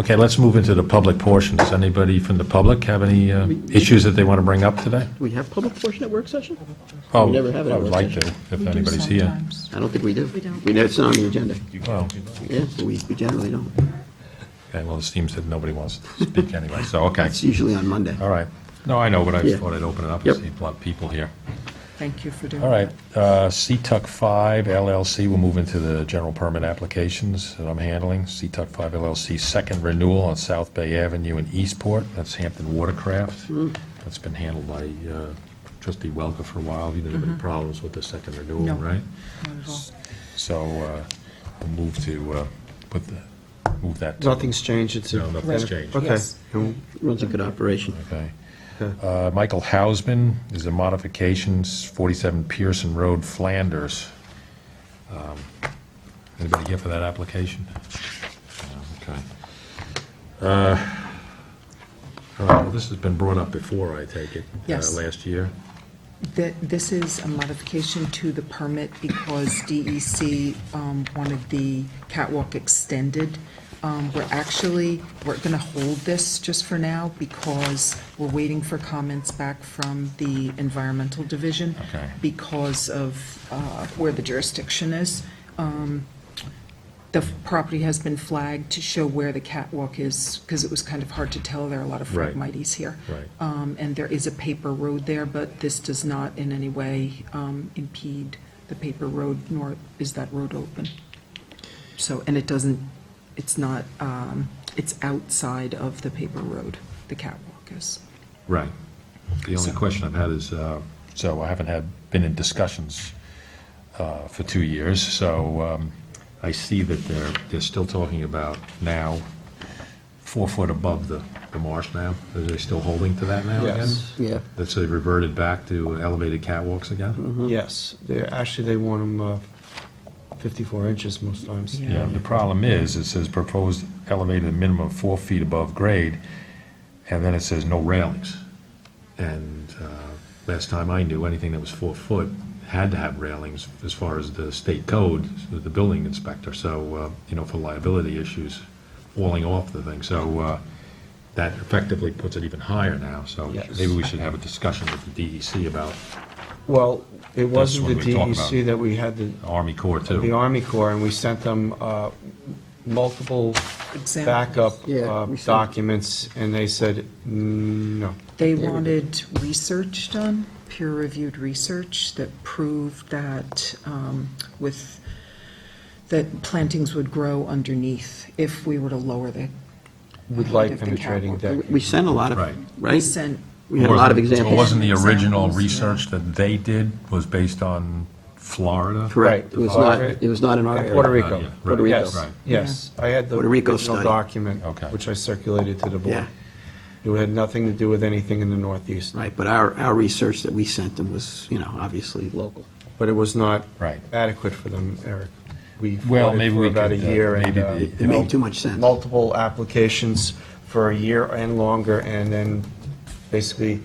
Okay, let's move into the public portion. Does anybody from the public have any uh, issues that they want to bring up today? Do we have public portion at work session? Oh, never have it at I would work like to, session. if We do anybody's here. sometimes. I don't think we do. We don't. know it's not on the agenda. Well, Yeah, but we we generally don't. okay, well, it seems that nobody wants to speak anyway, so, okay. It's usually on Monday. All right. No, I know, but I Yeah. just thought I'd open it up and Yep. see a lot of people here. Thank you for doing that. All right, uh, CTUC 5 LLC, we'll move into the general permit applications that I'm handling. CTUC 5 LLC, second renewal on South Bay Avenue in Eastport, that's Hampton Watercraft. Hmm. That's been handled by uh, trustee Welker for a while. You didn't have any problems with the second renewal, Mm-hmm. No. right? Not at all. So uh, we'll move to, uh, put the, move that. to- Nothing's changed, it's. No, nothing's changed. Okay. Yes. Runs a good operation. Okay. Uh, Michael Hausman is a modifications, 47 Pearson Road, Flanders. Um, Anybody here for that application? No, Okay. Uh, All right, well, this has been brought up before, I take it? uh, Yes. Last year? Th- This is a modification to the permit because DEC um, wanted the catwalk extended. Um, We're actually, we're going to hold this just for now because we're waiting for comments back from the Environmental Division. Okay. Because of uh, where the jurisdiction is. Um, The property has been flagged to show where the catwalk is because it was kind of hard to tell. There are a lot of Right. fragmites here. Right. Um, And there is a paper road there, but this does not in any way um, impede the paper road, nor is that road open. So, and it doesn't, it's not, um, it's outside of the paper road, the catwalk is. Right. The only So- question I've had is, uh, so I haven't had, been in discussions uh, for two years, so um, I see that they're, they're still talking about now, four foot above the, the marsh now. Are they still holding to that now again? Yes. Yeah. That's they reverted back to elevated catwalks again? Mm-hmm. Yes, they, actually, they want them uh, 54 inches most times. Yeah. Yeah, the problem is, it says proposed elevated minimum of four feet above grade, and then it says no railings. And uh, last time I knew, anything that was four foot had to have railings as far as the state code, the building inspector, so, uh, you know, for liability issues, falling off the thing. So uh, that effectively puts it even higher now, so Yes. maybe we should have a discussion with the DEC about Well, it wasn't the when we talk about it. DEC that we had the, Army Corps too. the Army Corps, and we sent them uh, multiple Examples. backup Yeah, uh, we sent- documents, and they said, "Mm, no. They wanted research done, peer-reviewed research that proved that um, with, that plantings would grow underneath if we were to lower the. We'd height like of the penetrating catwalk. deck. We sent a lot of, Right. We right? sent We had a lot of Wasn't- examples. It wasn't the original Examples, yeah. research that they did, was based on Florida? Correct. It was not, it was not an Puerto article. Uh, Rico. yeah, Puerto right, Rico. Yes, right. yes. I had the Puerto Rico original study. document, Okay. which I circulated to the board. Yeah. It had nothing to do with anything in the Northeast. Right, but our, our research that we sent them was, you know, obviously local. But it was not Right. adequate for them, Eric. We Well, fought it maybe for we about a could, uh, year and. maybe uh, the- It It made made- too much sense. multiple applications for a year and longer, and then basically,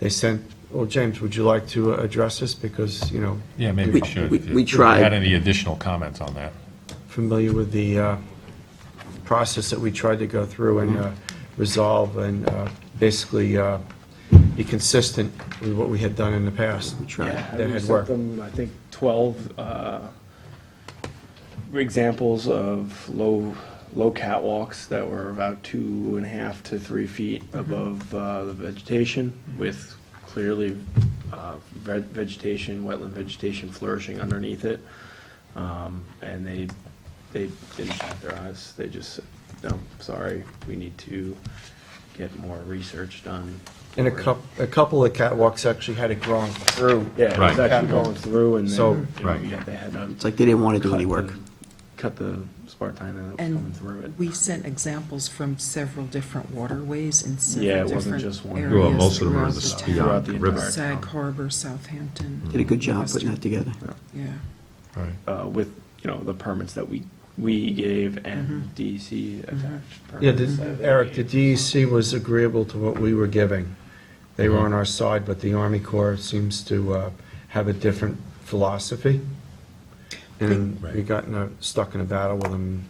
they sent, well, James, would you like to address this? Because, you know, Yeah, maybe We- we should. we- if you- we if you tried. Had any additional comments on that? familiar with the uh, process that we tried to go through and uh, resolve and uh, basically uh, be consistent with what we had done in the past. We tried. That We had sent worked. them, I think, 12 uh, examples of low, low catwalks that were about two and a half to three feet Mm-hmm. above uh, the vegetation with clearly uh, ve- vegetation, wetland vegetation flourishing underneath it. Um, And they, they didn't bat their eyes. They just said, no, sorry, we need to get more research done. And a coup, a couple of catwalks actually had it growing through. Yeah, it was Right. actually going through and So- then, you know, Right. yeah, they had to It's like they didn't want to do cut any work. the- Cut the spark time that was coming And through it. we sent examples from several different waterways and Yeah, it several wasn't different just one. areas. Well, most of them are in the throughout Spion town. Throughout the River. entire Sag town. Harbor, Southampton. Did a good job putting that together. Yeah. Uh, with, you know, the permits that we, we gave and DEC attached. permits Yeah, that the- they Eric, the gave. DEC was agreeable to what we were giving. They were on our side, but the Army Corps seems to uh, have a different philosophy. And we got in a- stuck in a battle with them